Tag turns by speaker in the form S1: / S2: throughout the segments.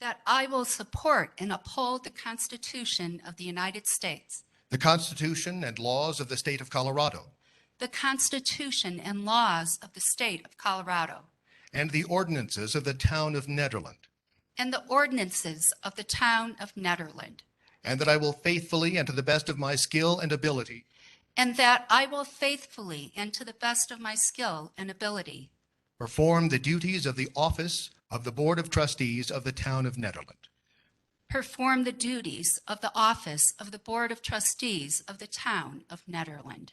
S1: that I will support and uphold the Constitution of the United States,
S2: the Constitution and laws of the state of Colorado,
S1: the Constitution and laws of the state of Colorado,
S2: and the ordinances of the town of Nederland,
S1: and the ordinances of the town of Netherland,
S2: and that I will faithfully and to the best of my skill and ability
S1: and that I will faithfully and to the best of my skill and ability
S2: perform the duties of the office of the Board of Trustees of the town of Nederland,
S1: perform the duties of the office of the Board of Trustees of the town of Netherland.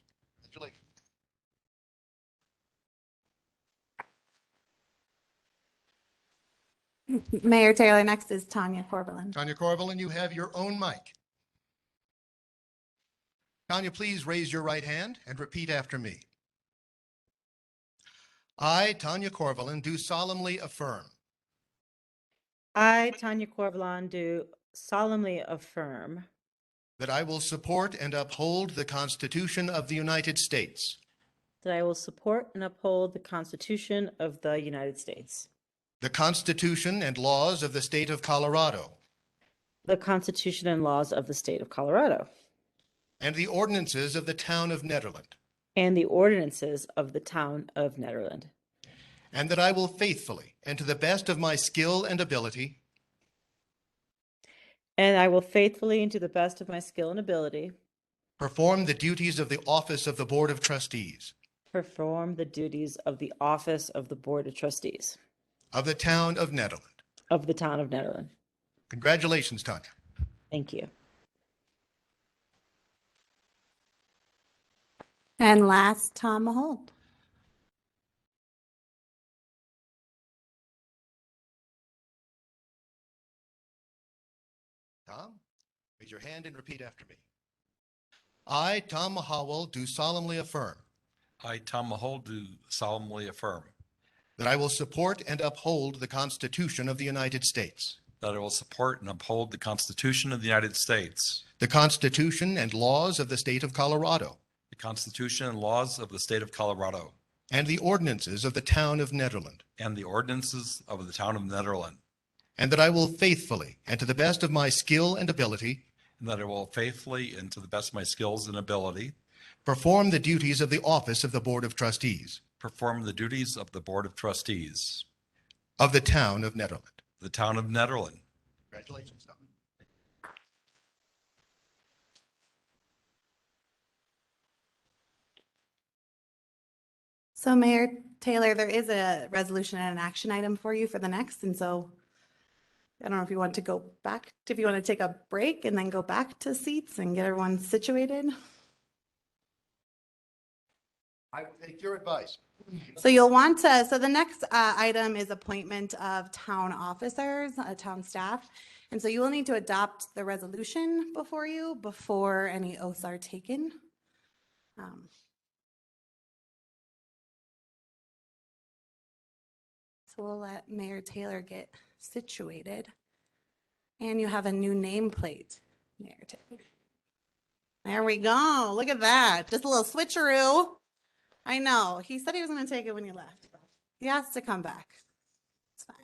S3: Mayor Taylor, next is Tanya Corvallin.
S2: Tanya Corvallin, you have your own mic. Tanya, please raise your right hand and repeat after me. I, Tanya Corvallin, do solemnly affirm
S4: I, Tanya Corvallon, do solemnly affirm
S2: that I will support and uphold the Constitution of the United States,
S4: that I will support and uphold the Constitution of the United States,
S2: the Constitution and laws of the state of Colorado,
S4: the Constitution and laws of the state of Colorado,
S2: and the ordinances of the town of Nederland,
S4: and the ordinances of the town of Netherland,
S2: and that I will faithfully and to the best of my skill and ability
S4: and I will faithfully and to the best of my skill and ability
S2: perform the duties of the office of the Board of Trustees
S4: perform the duties of the office of the Board of Trustees
S2: of the town of Nederland.
S4: of the town of Netherland.
S2: Congratulations, Tanya.
S4: Thank you.
S3: And last, Tom Mahold.
S2: Tom, raise your hand and repeat after me. I, Tom Mahawal, do solemnly affirm
S5: I, Tom Mahol, do solemnly affirm
S2: that I will support and uphold the Constitution of the United States,
S5: that I will support and uphold the Constitution of the United States,
S2: the Constitution and laws of the state of Colorado,
S5: the Constitution and laws of the state of Colorado,
S2: and the ordinances of the town of Nederland,
S5: and the ordinances of the town of Netherland,
S2: and that I will faithfully and to the best of my skill and ability
S5: and that I will faithfully and to the best of my skills and ability
S2: perform the duties of the office of the Board of Trustees
S5: perform the duties of the Board of Trustees,
S2: of the town of Nederland.
S5: of the town of Netherland.
S2: Congratulations, Tom.
S3: So Mayor Taylor, there is a resolution and an action item for you for the next, and so I don't know if you want to go back, if you want to take a break and then go back to seats and get everyone situated.
S2: I will take your advice.
S3: So you'll want to, so the next uh, item is appointment of town officers, uh, town staff. And so you will need to adopt the resolution before you, before any oaths are taken. Um, So we'll let Mayor Taylor get situated. And you have a new nameplate, Mayor Taylor. There we go. Look at that. Just a little switcheroo. I know. He said he was going to take it when he left. He has to come back. It's fine.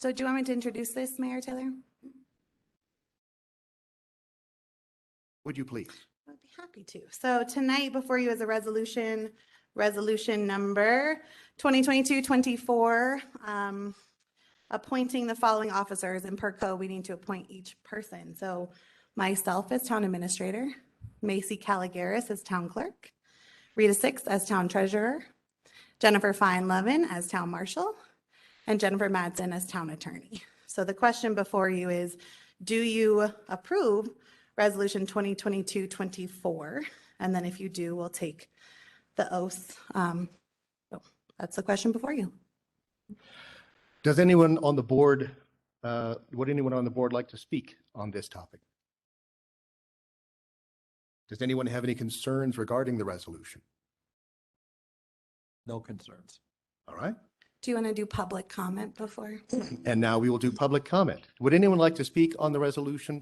S3: So do you want me to introduce this, Mayor Taylor?
S2: Would you please?
S3: I would be happy to. So tonight before you is a resolution, resolution number 2022-24, um, appointing the following officers, and per co, we need to appoint each person. So myself as town administrator, Macy Caligaris as town clerk, Rita Six as town treasurer, Jennifer Fine Levin as town marshal, and Jennifer Madsen as town attorney. So the question before you is, do you approve Resolution 2022-24? And then if you do, we'll take the oaths. Um, so That's the question before you.
S2: Does anyone on the board, uh, would anyone on the board like to speak on this topic? Does anyone have any concerns regarding the resolution?
S5: No concerns.
S2: All right.
S3: Do you want to do public comment before?
S2: And now we will do public comment. Would anyone like to speak on the resolution